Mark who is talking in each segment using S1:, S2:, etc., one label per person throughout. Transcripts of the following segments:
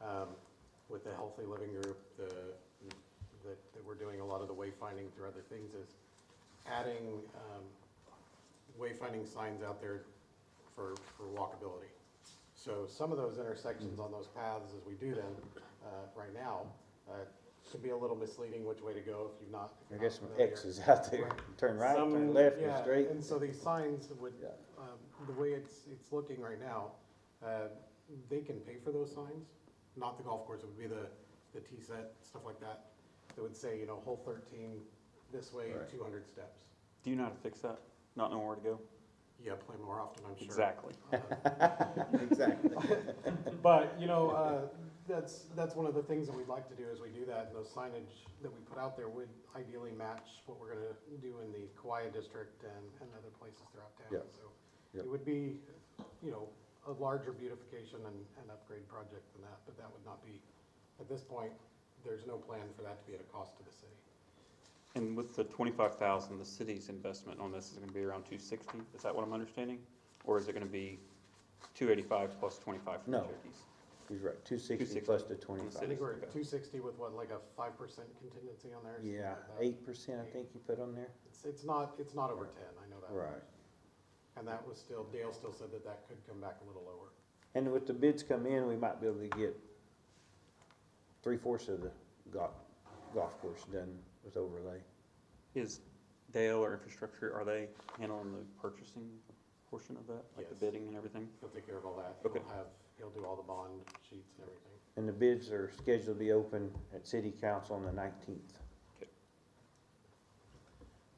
S1: um, Healthy Living Group, the, that, that we're doing a lot of the wayfinding through other things is adding, um, wayfinding signs out there for, for walkability. So some of those intersections on those paths, as we do them, uh, right now, uh, can be a little misleading which way to go if you've not.
S2: I guess some
S1: familiar.
S2: X's out there, turn right,
S1: Some-
S2: turn left,
S1: yeah,
S2: and straight.
S1: And so these signs would,
S2: Yeah.
S1: um, the way it's, it's looking right now, uh, they can pay for those signs, not the golf course, it would be the, the tee set, stuff like that. That would say, you know, hole thirteen, this way,
S2: Right.
S1: two hundred steps.
S3: Do you know how to fix that? Not know where to go?
S1: Yeah, play more often, I'm sure.
S3: Exactly.
S1: Uh,
S2: Exactly.
S1: But, you know, uh, that's, that's one of the things that we'd like to do is we do that, and those signage that we put out there would ideally match what we're gonna do in the Kauai district and, and other places throughout town,
S2: Yeah.
S1: so.
S2: Yeah.
S1: It would be, you know, a larger beautification and, and upgrade project than that, but that would not be, at this point, there's no plan for that to be at a cost to the city.
S3: And with the twenty-five thousand, the city's investment on this is gonna be around two sixty, is that what I'm understanding? Or is it gonna be two eighty-five plus twenty-five for the
S2: No.
S3: Cherokees?
S2: He's right, two sixty
S3: 260
S2: plus the
S1: I
S2: twenty-five.
S1: think we're
S3: Okay.
S1: at two sixty with what, like a five percent contingency on there? or something
S2: Yeah,
S1: like that.
S2: eight percent, I think you put on there.
S1: It's, it's not, it's not over ten, I know that.
S2: Right.
S1: And that was still, Dale still said that that could come back a little lower.
S2: And with the bids come in, we might be able to get three fourths of the golf, golf course done with overlay.
S3: Is Dale or infrastructure, are they handling the purchasing portion of that? Like the
S1: Yes.
S3: bidding and everything?
S1: He'll take care of all that. He'll
S3: Okay.
S1: have, he'll do all the bond sheets and everything.
S2: And the bids are scheduled to be open at city council on the nineteenth.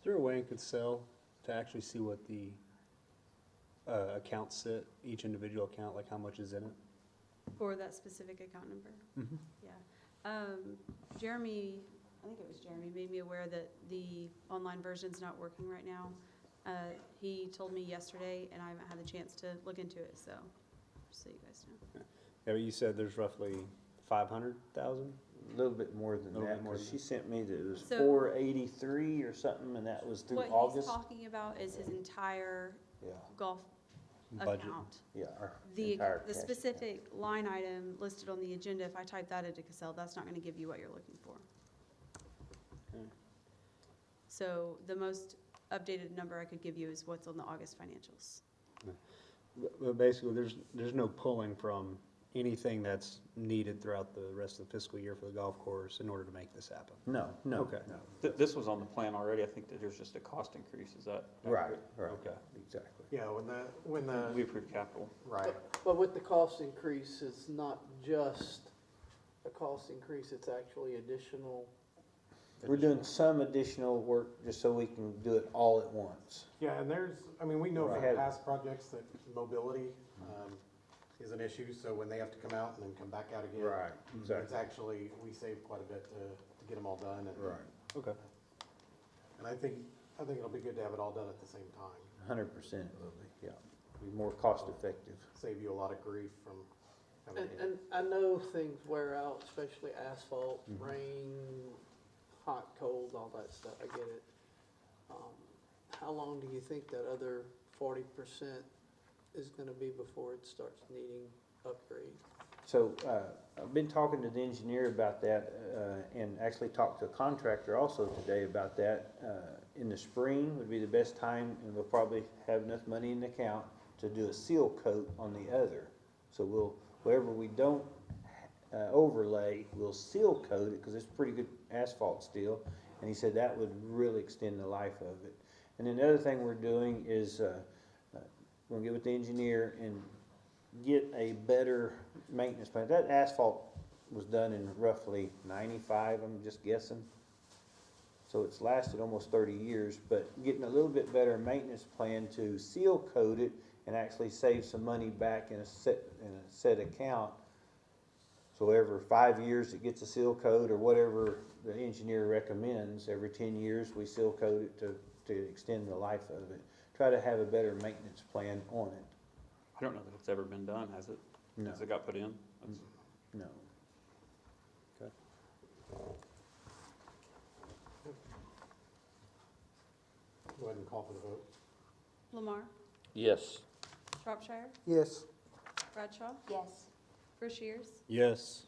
S4: Is there a way I could sell to actually see what the uh, accounts sit, each individual account, like how much is in it?
S5: For that specific account number? Yeah. Um, Jeremy, I think it was Jeremy, made me aware that the online version's not working right now. Uh, He told me yesterday, and I haven't had the chance to look into it, so, just so you guys know.
S4: Yeah, but you said there's roughly five hundred thousand?
S2: A little bit more than
S4: Little
S2: that,
S4: bit more
S2: cause
S4: than
S2: she sent me that it was
S5: So-
S2: four eighty-three or something, and that was through
S5: What he's
S2: August.
S5: talking about is his entire
S2: Yeah,
S5: golf
S4: Budget.
S5: account.
S2: yeah, our
S5: The,
S2: entire
S5: the
S2: cash.
S5: specific line item listed on the agenda, if I type that into Excel, that's not gonna give you what you're looking for.
S4: Okay.
S5: So the most updated number I could give you is what's on the August financials.
S4: But- But basically, there's, there's no pulling from anything that's needed throughout the rest of the fiscal year for the golf course in order to make this happen.
S2: No, no,
S4: Okay.
S2: no.
S3: Th- this was on the plan already, I think that there's just a cost increase, is that?
S2: Right, right,
S4: Okay.
S2: exactly.
S1: Yeah, when the, when
S3: We
S1: the,
S3: approved capital.
S1: right,
S6: But with the cost increase, it's not just a cost increase, it's actually additional.
S2: We're doing some additional work just so we can do it all at once.
S1: yeah, and there's, I mean, we know from
S2: Right.
S1: past projects that mobility, um, is an issue, so when they have to come out and then come back out again. It's actually, we save quite a bit to, to get them all done, and.
S4: Okay.
S1: And I think, I think it'll be good to have it all done at the same time,
S2: Hundred percent, Lily, yeah. Be more cost effective.
S1: save you a lot of grief from. having
S6: And,
S1: to-
S6: and I know things wear out, especially asphalt, rain, hot, cold, all that stuff, I get it. Um, How long do you think that other forty percent is gonna be before it starts needing upgrade?
S2: So, uh, I've been talking to the engineer about that, uh, and actually talked to a contractor also today about that. Uh, in the spring would be the best time, and we'll probably have enough money in the account to do a seal coat on the other. So we'll, wherever we don't, uh, overlay, we'll seal coat it, cause it's pretty good asphalt still. And he said that would really extend the life of it. And then the other thing we're doing is, uh, uh, we'll get with the engineer and get a better maintenance plan. That asphalt was done in roughly ninety-five, I'm just guessing. So it's lasted almost thirty years, but getting a little bit better maintenance plan to seal coat it and actually save some money back in a set, in a set account. So every five years, it gets a seal coat or whatever the engineer recommends. Every ten years, we seal coat it to, to extend the life of it. Try to have a better maintenance plan on it.
S3: I don't know that it's ever been done, has it?
S2: No, Mm-hmm.
S3: Has it got put in? That's-
S2: no.
S1: Go ahead and call for the vote.
S5: Lamar,
S7: Yes.
S5: Shropshire,
S2: Yes.
S5: Bradshaw,
S8: Yes.
S5: Rushiers,
S4: Yes.